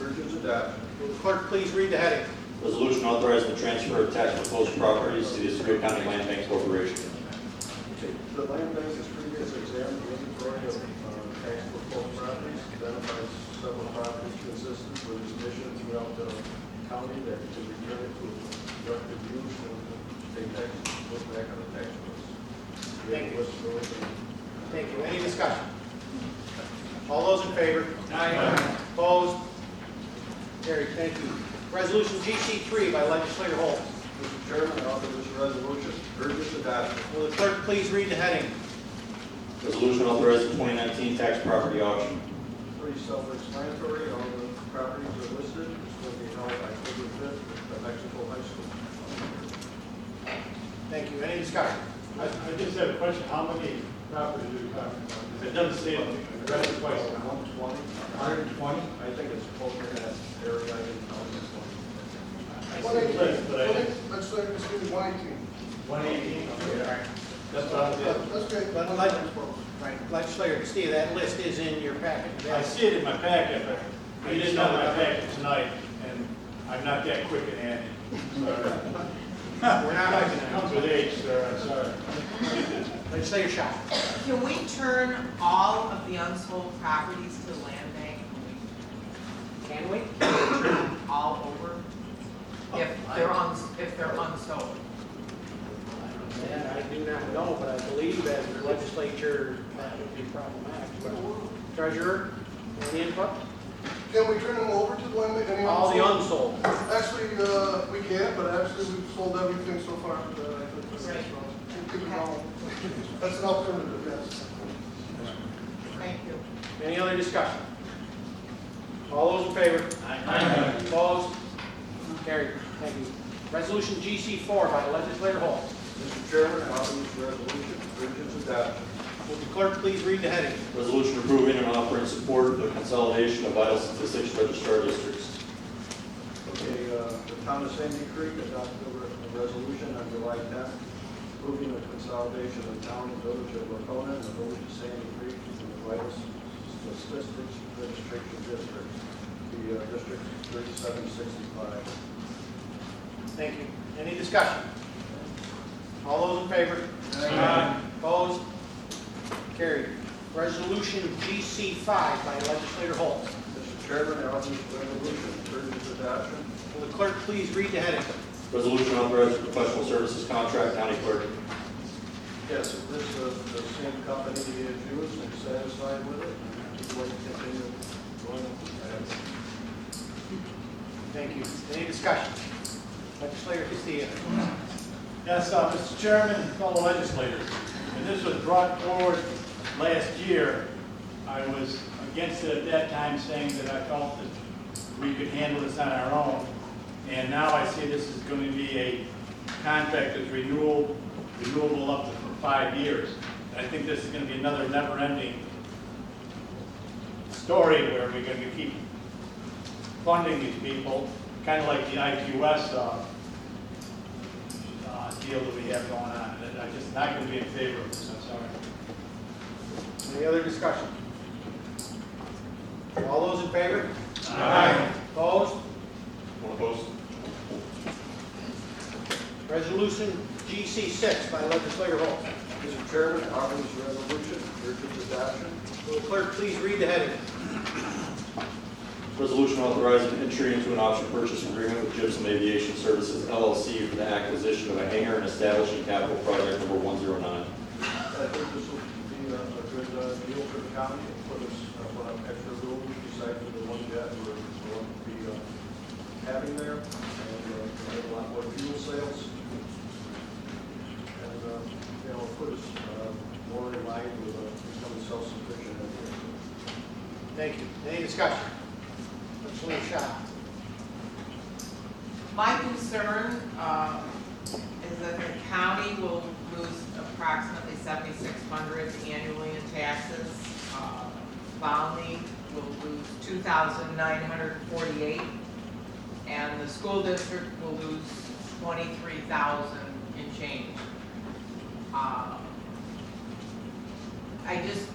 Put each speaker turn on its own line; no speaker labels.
Resolution's adopted. Will the clerk please read the heading?
Resolution authorizing the transfer of tax proposed properties to the Oswego County Land Bank Corporation.
The land base is previously examined, the inventory of uh, tax foreclosed properties, identifies several properties consistent with this mission throughout the county that to return it to productive use and pay tax, put back on the tax rolls. We have a list of those and-
Thank you. Any discussion? All those in favor? Aye. Opposed? Carried. Thank you. Resolution GC three by legislator Holt.
Mr. Chairman, I offer this resolution, urge its adoption.
Will the clerk please read the heading?
Resolution authorizing 2019 tax property auction.
Pretty self-explanatory, all the properties are listed, it's going to be held by October fifth at the Mexico High School.
Thank you. Any discussion?
I I just have a question, how many properties are you talking about? 'Cause It doesn't say, it. I read it twice.
One twenty. I think it's closer to that area I didn't know this one.
I
One
see
eighteen,
it, but I didn't.
let's say, let's do one eighteen.
One eighteen, okay, all right. That's what I did.
Let's create
Let-
one
let-
times twelve.
Right. Legislator Castillo, that list is in your packet.
I see it in my packet, but it is not in my packet tonight, and I'm not that quick at handing. Sorry.
We're not
It
opening
comes with age, sir, I'm sorry.
it. Legislator Shaw.
Can we turn all of the unsold properties to the land bank?
Can we?
All over? If they're uns, if they're unsold?
And I do not know, but I believe as the legislature, that would be problematic. Treasurer, any input?
Can we turn them over to the land bank? Any
All the
unsold?
unsold.
Actually, uh, we can, but actually, we've sold everything so far. uh, I think that's-
Right.
We'll keep it all. That's an alternative, yes.
Thank you.
Any other discussion? All those in favor? Aye. Opposed? Carried. Thank you. Resolution GC four by legislator Hall.
Mr. Chairman, I offer this resolution, urge its adoption.
Will the clerk please read the heading?
Resolution approving and offering support of the consolidation of vital statistics registrar districts.
Okay, uh, the town of Sandy Creek adopted a resolution on July tenth, approving the consolidation of town and village of Lacona and the village of Sandy Creek in the vital statistics registration district, the uh, district thirty-seven sixty-five.
Thank you. Any discussion? All those in favor? Aye. Opposed? Carried. Resolution GC five by legislator Hall.
Mr. Chairman, I offer this resolution, urge its adoption.
Will the clerk please read the heading?
Resolution authorizing professional services contract county clerk.
Yes, if this, uh, the same company is used and satisfied with it, we'd like to continue going.
Thank you. Any discussion? Legislator Castillo.
Yes, uh, Mr. Chairman, fellow legislators, when this was brought forward last year, I was against it at that time, saying that I felt that we could handle this on our own. And now I see this is going to be a contract that's renewal, renewable up to for five years. I think this is going to be another never-ending story where we're going to keep funding these people, kind of like the IQS uh, uh, deal that we have going on, and I'm just not going to be in favor of this, I'm sorry.
Any other discussion? All those in favor? Aye. Opposed?
Want to post?
Resolution GC6 by legislator Hall.
Mr. Chairman, I offer this resolution, urge its adoption.
Will the clerk please read the heading?
Resolution authorizing entry into an option purchase agreement with Gypsum Aviation Services LLC for the acquisition of a hangar and establishing capital project number 109.
I think this will be uh, a good uh, deal for the county, and put us uh, on an extra rule besides for the one jet we're going to be uh, having there, and uh, we have a lot more fuel sales. And, uh, you know, put us uh, more in line with uh, becoming self-sufficient.
Thank you. Any discussion? Legislator Shaw.
My concern, um, is that the county will lose approximately seventy-six hundred annually in taxes. Uh, Valney will lose two thousand nine hundred forty-eight, and the school district will lose twenty-three thousand in change. Uh, I just